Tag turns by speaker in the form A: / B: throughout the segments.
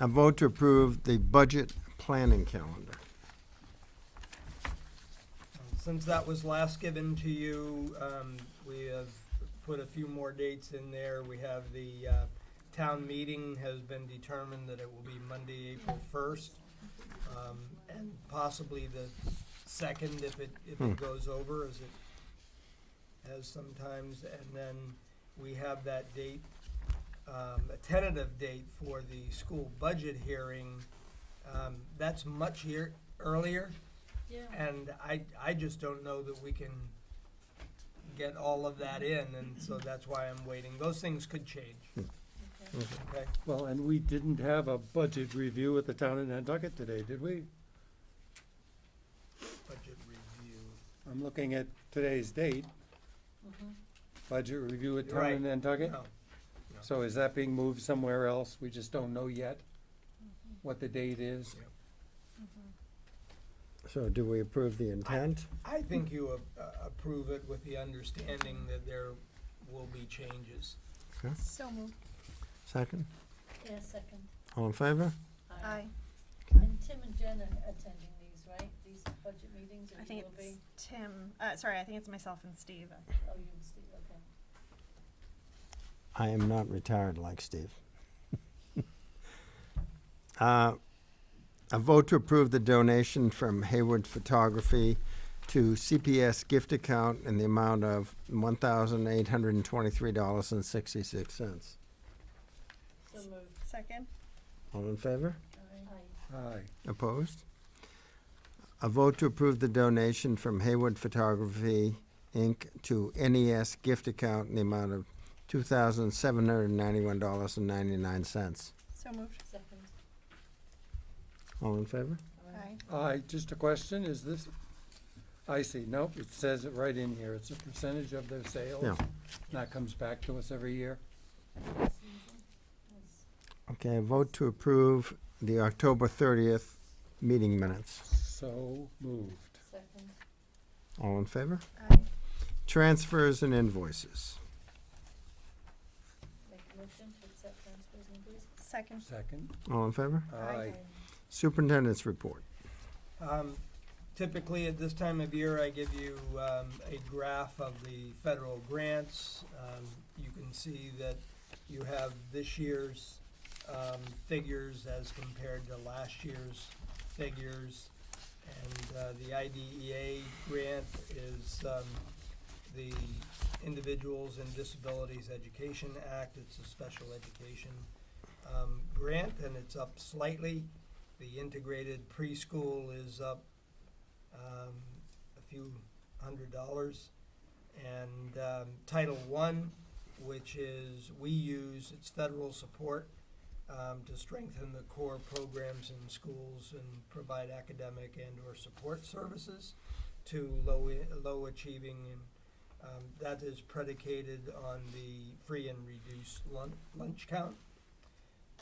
A: A vote to approve the budget planning calendar.
B: Um, Since that was last given to you, um, we have put a few more dates in there. We have the, uh, town meeting has been determined that it will be Monday, April first. Um, and possibly the second if it, if
A: Hmm.
B: it goes over as it has sometimes. And then we have that date, um, a tentative date for the school budget hearing. Um, that's much year, earlier.
C: Yeah.
B: And I, I just don't know that we can get all of that in, and so that's why I'm waiting. Those things could change,
C: okay.
B: okay?
D: Well, and we didn't have a budget review at the town in Nantucket today, did we?
B: Budget review.
D: I'm looking at today's date,
C: Mhm.
D: budget review at town
B: Mm-hmm. Right.
D: in Nantucket.
B: No,
D: So is that being moved somewhere else? We just don't know yet
B: Mm-hmm.
D: what the date is.
A: So do we approve the intent?
B: I think you a- a- approve it with the understanding that there will be changes.
C: So moved.
A: Second?
C: Yeah, second.
A: All in favor?
E: Aye.
C: And Tim and Jen are attending these, right? These budget meetings,
E: I
C: or you
E: think
C: will
E: it's
C: be?
E: Tim, uh, sorry, I think it's myself and Steve.
C: Oh, you and Steve, okay.
A: I am not retired like Steve. Uh, A vote to approve the donation from Hayward Photography to CPS gift account in the amount of one thousand eight hundred and twenty-three dollars and sixty-six cents.
C: So moved.
E: Second?
A: All in favor?
C: Aye.
D: Aye.
A: Opposed? A vote to approve the donation from Hayward Photography, Inc. to NES gift account in the amount of two thousand seven hundred and ninety-one dollars and ninety-nine cents.
E: So moved.
C: Second.
A: All in favor?
E: Aye.
D: Aye, just a question, is this, I see, nope, it says it right in here, it's a percentage of their sales.
A: Yeah.
D: And That comes back to us every year.
C: Yes.
A: Okay, a vote to approve the October thirtieth meeting minutes.
D: So moved.
B: Mm-hmm.
C: Second.
A: All in favor?
E: Aye.
A: Transfers and invoices.
C: Make a motion to accept transfers and invoices.
E: Second?
D: Second,
A: All in favor?
D: aye.
A: Superintendent's report.
B: Um, Typically, at this time of year, I give you um, a graph of the federal grants. Um, You can see that you have this year's um, figures as compared to last year's figures. And uh, the IDEA grant is um, the Individuals and Disabilities Education Act. It's a special education um, grant, and it's up slightly. The integrated preschool is up um, a few hundred dollars. And um, Title I, which is, we use, it's federal support um, to strengthen the core programs in schools and provide academic and/or support services to low, low achieving. and um, That is predicated on the free and reduced lunch, lunch count.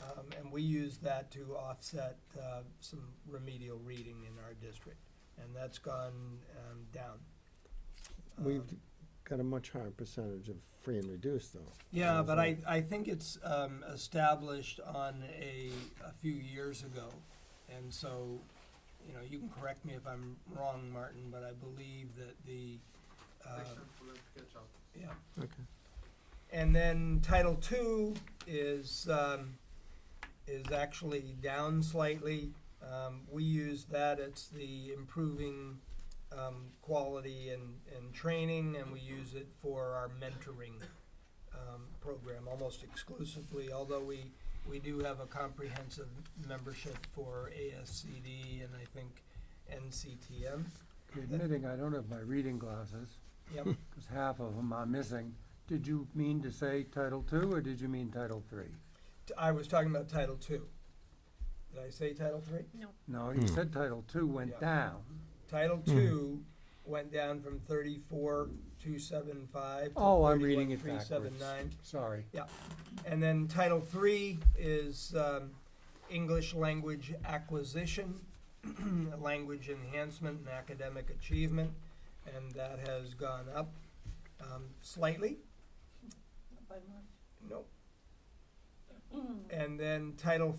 B: Um, and we use that to offset, uh, some remedial reading in our district, and that's gone, um, down.
A: We've
B: Um,
A: got a much higher percentage of free and reduced, though.
B: Yeah, but I,
A: Isn't
B: I think it's um, established on a, a few years ago. And so, you know, you can correct me if I'm wrong, Martin, but I believe that the, uh, yeah.
A: Okay.
B: And then Title II is, um, is actually down slightly. Um, we use that, it's the improving, um, quality and, and training, and we use it for our mentoring, um, program almost exclusively, although we, we do have a comprehensive membership for ASCD and I think NCTM.
D: Admitting I don't have my reading glasses,
B: Yep.
D: because half of them are missing. Did you mean to say Title Two, or did you mean Title Three?
B: T- I was talking about Title Two. Did I say Title Three?
D: No, you
A: Hmm.
D: said Title Two went
B: Yeah.
D: down.
B: Title
D: Hmm.
A: Mhm.
B: Two went down from thirty-four, two, seven, five.
D: Oh, I'm reading it backwards. Sorry.
B: And then Title Three is, um, English language acquisition, language enhancement and academic achievement, and that has gone up, um, slightly,
C: By March.
B: nope. And then Title